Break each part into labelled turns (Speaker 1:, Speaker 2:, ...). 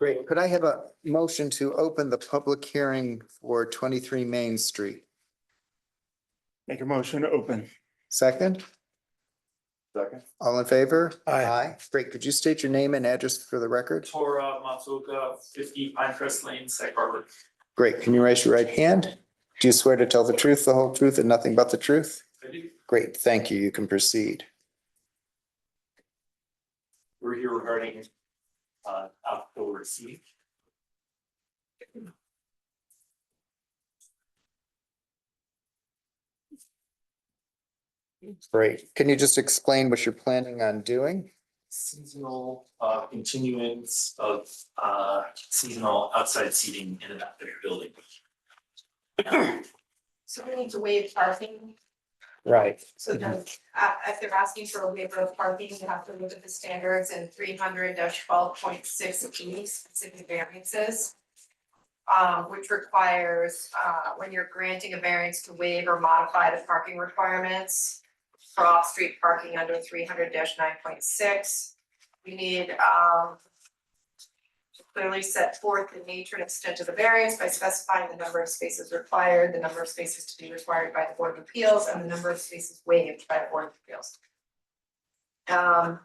Speaker 1: Great. Could I have a motion to open the public hearing for twenty-three Main Street?
Speaker 2: Make a motion to open.
Speaker 1: Second,
Speaker 2: Second.
Speaker 1: all in favor?
Speaker 2: Aye.
Speaker 1: Great. Could you state your name and address for the record?
Speaker 3: Torah Matsuoka, fifty Pinecrest Lane, Sag Harbor.
Speaker 1: Great. Can you raise your right hand? Do you swear to tell the truth, the whole truth, and nothing but the truth?
Speaker 3: Ready?
Speaker 1: Great. Thank you. You can proceed.
Speaker 3: We're here regarding uh outdoor seating.
Speaker 1: Great. Can you just explain what you're planning on doing?
Speaker 3: Seasonal uh continuance of uh seasonal outside seating in an outdoor building.
Speaker 4: So we need to waive parking,
Speaker 1: Right.
Speaker 4: so then, uh, if they're asking for a waiver of parking, you have to look at the standards in three hundred twelve point six E, specific variances. Um, which requires, uh, when you're granting a variance to waive or modify the parking requirements. For off-street parking under three hundred nine point six, we need, um. to Clearly set forth the nature and extent of the variance by specifying the number of spaces required, the number of spaces to be required by the Board of Appeals, and the number of spaces waived by the Board of Appeals. Um,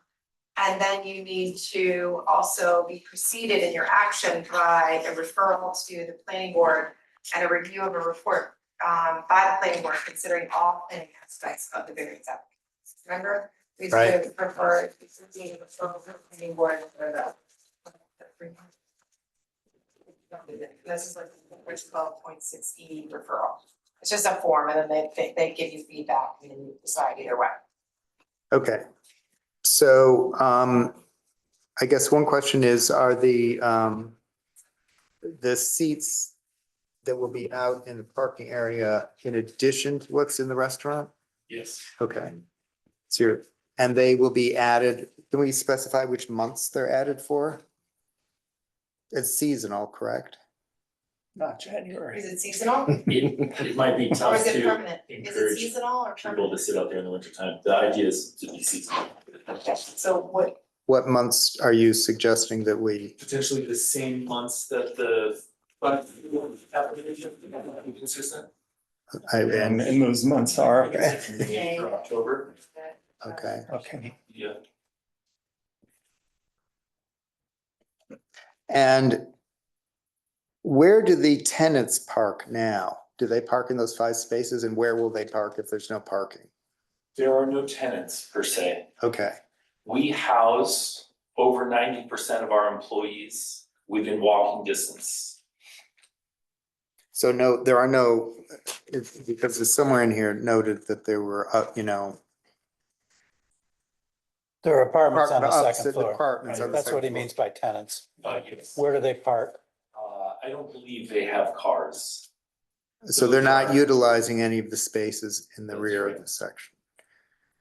Speaker 4: and then you need to also be preceded in your action by a referral to the planning board and a review of a report, um, by the planning board considering all planning aspects of the variance application. Remember, we
Speaker 1: Right.
Speaker 4: should prefer, we should be referral to the planning board for the this is like, which is twelve point six E referral. It's just a form and then they, they, they give you feedback and then you decide either way.
Speaker 1: Okay. So um, I guess one question is, are the um, the seats that will be out in the parking area in addition to what's in the restaurant?
Speaker 3: Yes.
Speaker 1: Okay. So you're, and they will be added, can we specify which months they're added for? It's seasonal, correct?
Speaker 2: Not January.
Speaker 4: Is it seasonal
Speaker 3: It it might be
Speaker 4: or
Speaker 3: tough
Speaker 4: is it
Speaker 3: to
Speaker 4: permanent? Is it
Speaker 3: encourage
Speaker 4: seasonal or
Speaker 3: people to
Speaker 4: permanent?
Speaker 3: sit out there in the wintertime. The idea is to be seasonal.
Speaker 4: So what,
Speaker 1: What months are you suggesting that we,
Speaker 3: Potentially the same months that the but application consistent.
Speaker 1: I,
Speaker 2: And,
Speaker 1: and,
Speaker 2: and those months are,
Speaker 3: Maybe For October,
Speaker 1: okay.
Speaker 2: okay.
Speaker 3: yeah.
Speaker 1: And where do the tenants park now? Do they park in those five spaces and where will they park if there's no parking?
Speaker 3: There are no tenants per se.
Speaker 1: Okay,
Speaker 3: We house over ninety percent of our employees within walking distance.
Speaker 1: so no, there are no, it's because it's somewhere in here noted that there were, uh, you know,
Speaker 5: There are apartments on
Speaker 1: Apartment-
Speaker 5: the
Speaker 1: opposite
Speaker 5: second floor.
Speaker 1: apartments on
Speaker 5: Right,
Speaker 1: the
Speaker 5: That's what he
Speaker 1: second
Speaker 5: means by tenants.
Speaker 3: Uh, yes.
Speaker 5: Where do they park?
Speaker 3: Uh, I don't believe they have cars.
Speaker 1: so they're not utilizing any of the spaces in the rear of the section.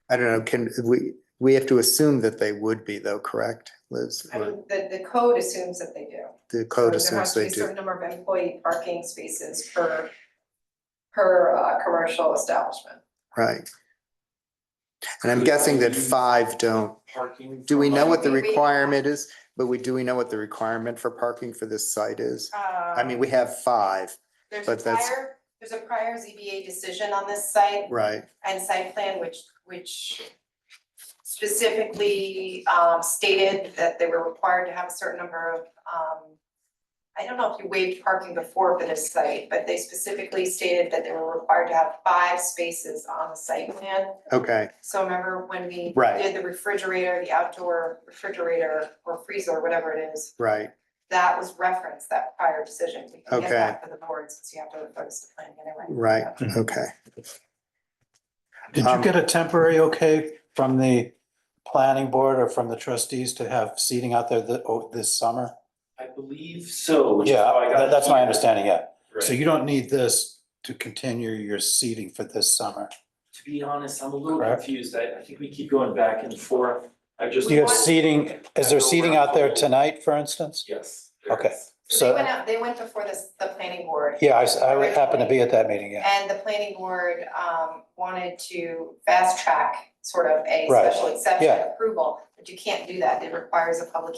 Speaker 1: I don't know, can, we, we have to assume that they would be though, correct, Liz?
Speaker 4: I mean, the, the code assumes that they do.
Speaker 1: The code
Speaker 4: So There has
Speaker 1: assumes
Speaker 4: to be
Speaker 1: they
Speaker 4: a
Speaker 1: do.
Speaker 4: certain number of employee parking spaces per, per, uh, commercial establishment.
Speaker 1: Right. And I'm guessing that five don't.
Speaker 3: Parking.
Speaker 1: Do we know what the
Speaker 4: We- we-
Speaker 1: requirement is? But we, do we know what the requirement for parking for this site is? I
Speaker 4: Um,
Speaker 1: mean, we have five,
Speaker 4: There's a
Speaker 1: but that's-
Speaker 4: prior, there's a prior ZBA decision on this site
Speaker 1: right?
Speaker 4: and site plan, which, which specifically, um, stated that they were required to have a certain number of, um, I don't know if you waived parking before for this site, but they specifically stated that they were required to have five spaces on the site plan.
Speaker 1: Okay,
Speaker 4: So remember when we
Speaker 1: Right.
Speaker 4: did the refrigerator, the outdoor refrigerator or freezer, whatever it is,
Speaker 1: right.
Speaker 4: that was referenced, that prior decision. We can get
Speaker 1: Okay.
Speaker 4: that for the board since you have to focus the plan anyway.
Speaker 1: Right. Okay,
Speaker 5: Did
Speaker 1: Um,
Speaker 5: you get a temporary okay from the planning board or from the trustees to have seating out there th- oh, this summer?
Speaker 3: I believe so, which is how I
Speaker 5: Yeah,
Speaker 3: got.
Speaker 5: tha- that's my
Speaker 3: here.
Speaker 5: understanding, yeah. So
Speaker 3: Right.
Speaker 5: you don't need this to continue your seating for this summer.
Speaker 3: To be honest, I'm a little
Speaker 5: Correct.
Speaker 3: confused. I, I think we keep going back and forth. I just.
Speaker 5: Do you have seating, is there seating out there tonight, for instance?
Speaker 3: Yes. there
Speaker 5: Okay.
Speaker 3: is.
Speaker 4: So they
Speaker 5: So,
Speaker 4: went
Speaker 1: uh,
Speaker 4: out, they went before this, the planning board.
Speaker 5: yeah, I, s- I would happen to be at that meeting, yeah.
Speaker 4: And the planning board um wanted to fast track sort of a
Speaker 5: Right.
Speaker 4: special exception
Speaker 5: Yeah.
Speaker 4: approval, but you can't do that. It requires a public